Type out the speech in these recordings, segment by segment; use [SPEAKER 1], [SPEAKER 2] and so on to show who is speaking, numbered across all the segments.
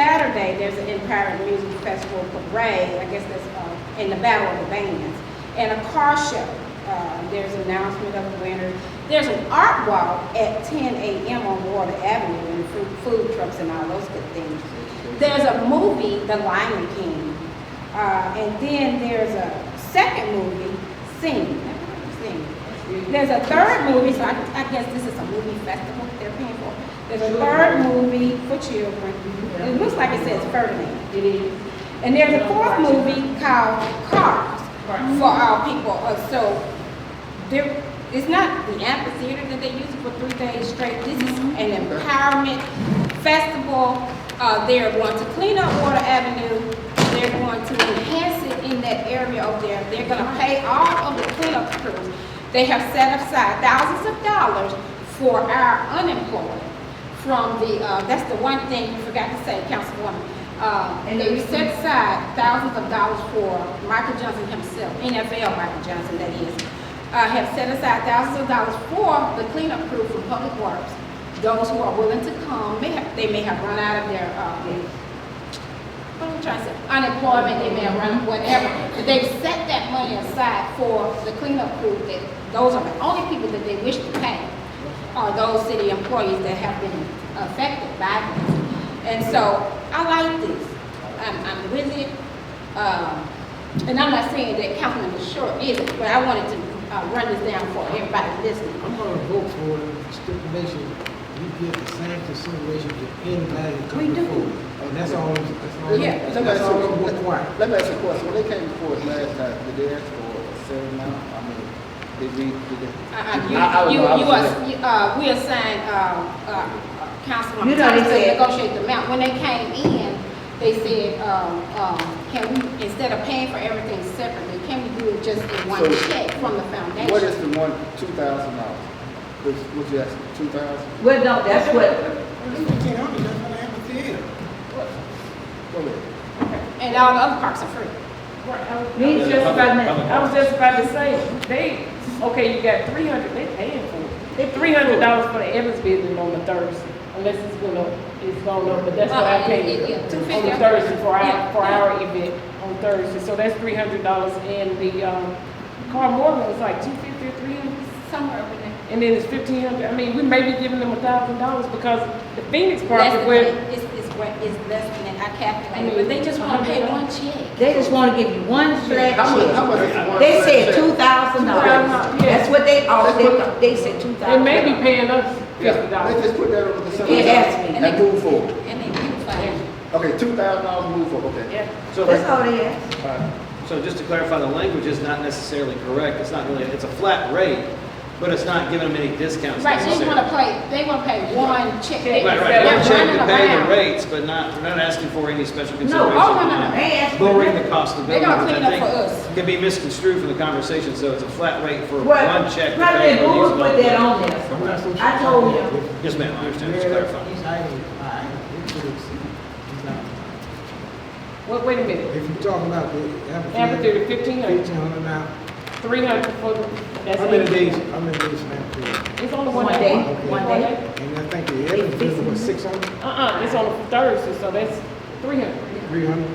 [SPEAKER 1] Saturday, there's an Empire Music Festival parade, I guess that's, uh, in the Battle of the Bands, and a car show. Uh, there's announcement of the winners. There's an art walk at ten AM on Water Avenue, and food, food trucks and all those good things. There's a movie, The Lion King, uh, and then there's a second movie, Sing, Sing. There's a third movie, so I, I guess this is a movie festival that they're paying for. There's a third movie for children. It looks like it says Ferdinand.
[SPEAKER 2] It is.
[SPEAKER 1] And there's a fourth movie called Cars for our people. Uh, So there, it's not the amphitheater that they use for three days straight. This is an empowerment festival. Uh, they're going to clean up Water Avenue. They're going to enhance it in that area over there. They're gonna pay all of the cleanup crews. They have set aside thousands of dollars for our unemployed from the, uh, that's the one thing you forgot to say, Councilwoman. Uh,
[SPEAKER 2] And
[SPEAKER 1] they
[SPEAKER 2] the-
[SPEAKER 1] set aside thousands of dollars for Michael Johnson himself, NFL Michael Johnson, that is, uh, have set aside thousands of dollars for the cleanup crew from Public Works. Those who are willing to come, may have, they may have run out of their, uh, what am I trying to say, unemployment, they may have run whatever, but they've set that money aside for the cleanup crew, that those are the only people that they wish to pay are uh, those city employees that have been affected by this. And so I like this. I'm, I'm with it. Um, and I'm not saying that Councilman is short either, but I wanted to uh, run this down for everybody Uh, listening.
[SPEAKER 3] I'm gonna vote for the stipulation, we give the same consideration to anybody that
[SPEAKER 1] We
[SPEAKER 3] comes
[SPEAKER 1] do.
[SPEAKER 3] before. And that's all, that's all,
[SPEAKER 1] Yeah.
[SPEAKER 3] that's all I'm requiring.
[SPEAKER 4] Let me ask you a question, when they came before us last time, did they ask for a certain amount, I mean, did we, did they?
[SPEAKER 5] Uh,
[SPEAKER 1] Uh-uh,
[SPEAKER 4] I- I
[SPEAKER 1] You, you,
[SPEAKER 4] was- I
[SPEAKER 1] you
[SPEAKER 4] was-
[SPEAKER 1] are, you, uh, we assigned, uh, uh, Councilman
[SPEAKER 2] You done
[SPEAKER 1] Thomas to
[SPEAKER 2] said-
[SPEAKER 1] negotiate the amount. When they came in, they said, um, um, can we, instead of paying for everything separately, can we do it just in one
[SPEAKER 4] So-
[SPEAKER 1] check from the foundation?
[SPEAKER 4] What is the one, two thousand dollars? What, what you asking, two thousand?
[SPEAKER 2] Well, no, that's what,
[SPEAKER 4] Go ahead.
[SPEAKER 1] And all the other parks are free.
[SPEAKER 5] Me just about, to- I was just about to say, they, okay, you got three hundred, they paying for it. They three hundred dollars for the Evans building on the Thursday, unless it's going up, it's going up, but that's what
[SPEAKER 1] Uh,
[SPEAKER 5] I paid.
[SPEAKER 1] Two
[SPEAKER 5] On
[SPEAKER 1] fifty.
[SPEAKER 5] the Thursday for our, for our event on Thursday, so that's three hundred dollars and the, um, Carl Morgan was like two fifty or three hundred.
[SPEAKER 1] Somewhere over there.
[SPEAKER 5] And then it's fifteen hundred, I mean, we may be giving them a thousand dollars because the Phoenix
[SPEAKER 1] Less
[SPEAKER 5] project
[SPEAKER 1] than
[SPEAKER 5] where,
[SPEAKER 1] that, it's, it's, wa- it's less than that, I calculated, but they just wanna pay one check.
[SPEAKER 2] they just wanna give you one flat
[SPEAKER 4] How much, how much
[SPEAKER 2] check.
[SPEAKER 4] is one?
[SPEAKER 2] They
[SPEAKER 4] flat
[SPEAKER 2] said
[SPEAKER 4] check?
[SPEAKER 2] two thousand
[SPEAKER 5] $2,000,
[SPEAKER 2] dollars.
[SPEAKER 5] yeah.
[SPEAKER 2] That's what they offered, they, they said two
[SPEAKER 5] they
[SPEAKER 2] thousand.
[SPEAKER 5] may be paying us
[SPEAKER 4] Yeah,
[SPEAKER 5] fifty
[SPEAKER 4] let's
[SPEAKER 5] dollars.
[SPEAKER 4] just put that on the consideration.
[SPEAKER 2] It has to be.
[SPEAKER 4] And move forward.
[SPEAKER 1] And they beautify
[SPEAKER 4] Okay, two thousand dollars, move forward, okay.
[SPEAKER 5] Yeah.
[SPEAKER 6] So,
[SPEAKER 2] That's all they asked.
[SPEAKER 6] so just to clarify, the language is not necessarily correct. It's not really, it's a flat rate, but it's not giving them any
[SPEAKER 1] it.
[SPEAKER 6] discounts
[SPEAKER 1] Right, they
[SPEAKER 6] necessarily.
[SPEAKER 1] just wanna pay, they wanna pay one check. They-
[SPEAKER 5] Right, right.
[SPEAKER 1] they're
[SPEAKER 5] One
[SPEAKER 6] One check to
[SPEAKER 1] running
[SPEAKER 6] pay the
[SPEAKER 1] around.
[SPEAKER 6] rates, but not, we're not asking for any special
[SPEAKER 2] No,
[SPEAKER 6] consideration.
[SPEAKER 2] oh, no, no, they asked. for
[SPEAKER 6] Lowering the cost of
[SPEAKER 1] They
[SPEAKER 6] building,
[SPEAKER 1] gonna
[SPEAKER 6] which
[SPEAKER 1] clean up
[SPEAKER 6] I
[SPEAKER 1] for us.
[SPEAKER 6] think can be misconstrued from the conversation, so it's a flat rate for
[SPEAKER 2] Well,
[SPEAKER 6] one check. to
[SPEAKER 2] President
[SPEAKER 6] pay for
[SPEAKER 2] Bowie
[SPEAKER 6] these
[SPEAKER 2] put
[SPEAKER 6] both.
[SPEAKER 2] that on there.
[SPEAKER 3] I'm not so sure.
[SPEAKER 2] I told him.
[SPEAKER 6] Yes, ma'am, I understand, just
[SPEAKER 3] Yeah,
[SPEAKER 6] clarifying.
[SPEAKER 3] these items, all right, it could exceed. It's not-
[SPEAKER 5] Wait, wait a minute,
[SPEAKER 3] If you're talking about the
[SPEAKER 5] amphitheater
[SPEAKER 3] amphitheater,
[SPEAKER 5] fifteen hundred.
[SPEAKER 3] fifteen hundred now,
[SPEAKER 5] Three hundred for the, that's.
[SPEAKER 3] how many
[SPEAKER 5] eighty.
[SPEAKER 3] days, how many days an amphitheater?
[SPEAKER 5] It's only
[SPEAKER 2] One
[SPEAKER 5] one
[SPEAKER 2] day.
[SPEAKER 5] day.
[SPEAKER 2] One day.
[SPEAKER 3] And I think the Evans building was six hundred,
[SPEAKER 5] Uh-uh, it's on a Thursday, so that's three hundred.
[SPEAKER 3] three hundred?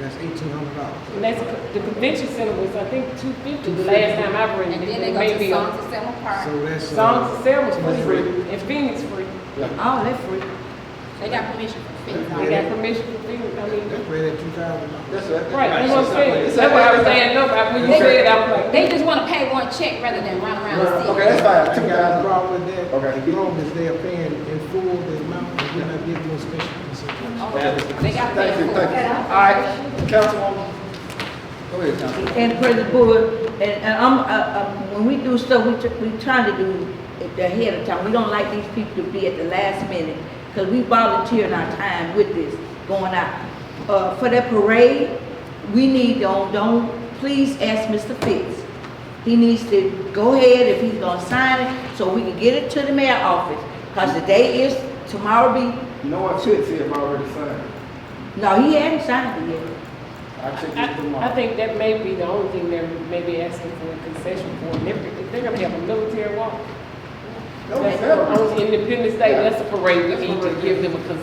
[SPEAKER 3] That's eighteen hundred dollars.
[SPEAKER 5] And that's, the convention center was, I think, two fifty the last time I rented.
[SPEAKER 1] And
[SPEAKER 5] it,
[SPEAKER 1] then they go
[SPEAKER 5] maybe
[SPEAKER 1] to Songs of Selma Park,
[SPEAKER 3] So that's. uh,
[SPEAKER 5] Songs and Sam
[SPEAKER 3] that's
[SPEAKER 5] was free, and Phoenix free.
[SPEAKER 2] Oh, that's free.
[SPEAKER 1] they got permission for fees.
[SPEAKER 5] I got permission from Phoenix, I mean,
[SPEAKER 3] That's right at two thousand dollars.
[SPEAKER 4] That's it.
[SPEAKER 5] right, that's what I'm saying.
[SPEAKER 4] It's
[SPEAKER 5] That's why I was
[SPEAKER 4] not-
[SPEAKER 5] saying, no, but when you said it, I was like,
[SPEAKER 1] They just wanna pay one check rather than run around the city.
[SPEAKER 4] Okay, that's
[SPEAKER 3] I
[SPEAKER 4] fine,
[SPEAKER 3] think I have
[SPEAKER 4] two
[SPEAKER 3] a
[SPEAKER 4] thousand.
[SPEAKER 3] problem with that.
[SPEAKER 4] Okay.
[SPEAKER 3] As long as they're paying in full the amount, and we're not giving no special consideration.
[SPEAKER 1] Oh, They gotta pay
[SPEAKER 4] Thank you,
[SPEAKER 1] for
[SPEAKER 4] thank
[SPEAKER 1] it.
[SPEAKER 4] you. All right, Councilwoman, go ahead, Councilwoman.
[SPEAKER 2] And President Bowie, and, and I'm, uh, uh, when we do stuff, we, tr- we trying to do it ahead of time. We don't like these people to be at the last minute, because we volunteering our time with this going out. Uh, for that parade, we need, don't, don't, please ask Mr. Fitz. He needs to go ahead if he's gonna sign it, so we can get it to the mayor office, because the day is, tomorrow be,
[SPEAKER 4] No one should see him already signed.
[SPEAKER 2] no, he hasn't signed it yet.
[SPEAKER 4] I checked it
[SPEAKER 5] I,
[SPEAKER 4] uh,
[SPEAKER 5] I- I
[SPEAKER 4] tomorrow.
[SPEAKER 5] think that may be the only thing they're maybe asking for a concession for. And They're, they're gonna have a military walk.
[SPEAKER 4] No,
[SPEAKER 5] That's
[SPEAKER 4] it's hell.
[SPEAKER 5] on Independence Day, that's a parade, we need to give them a concession.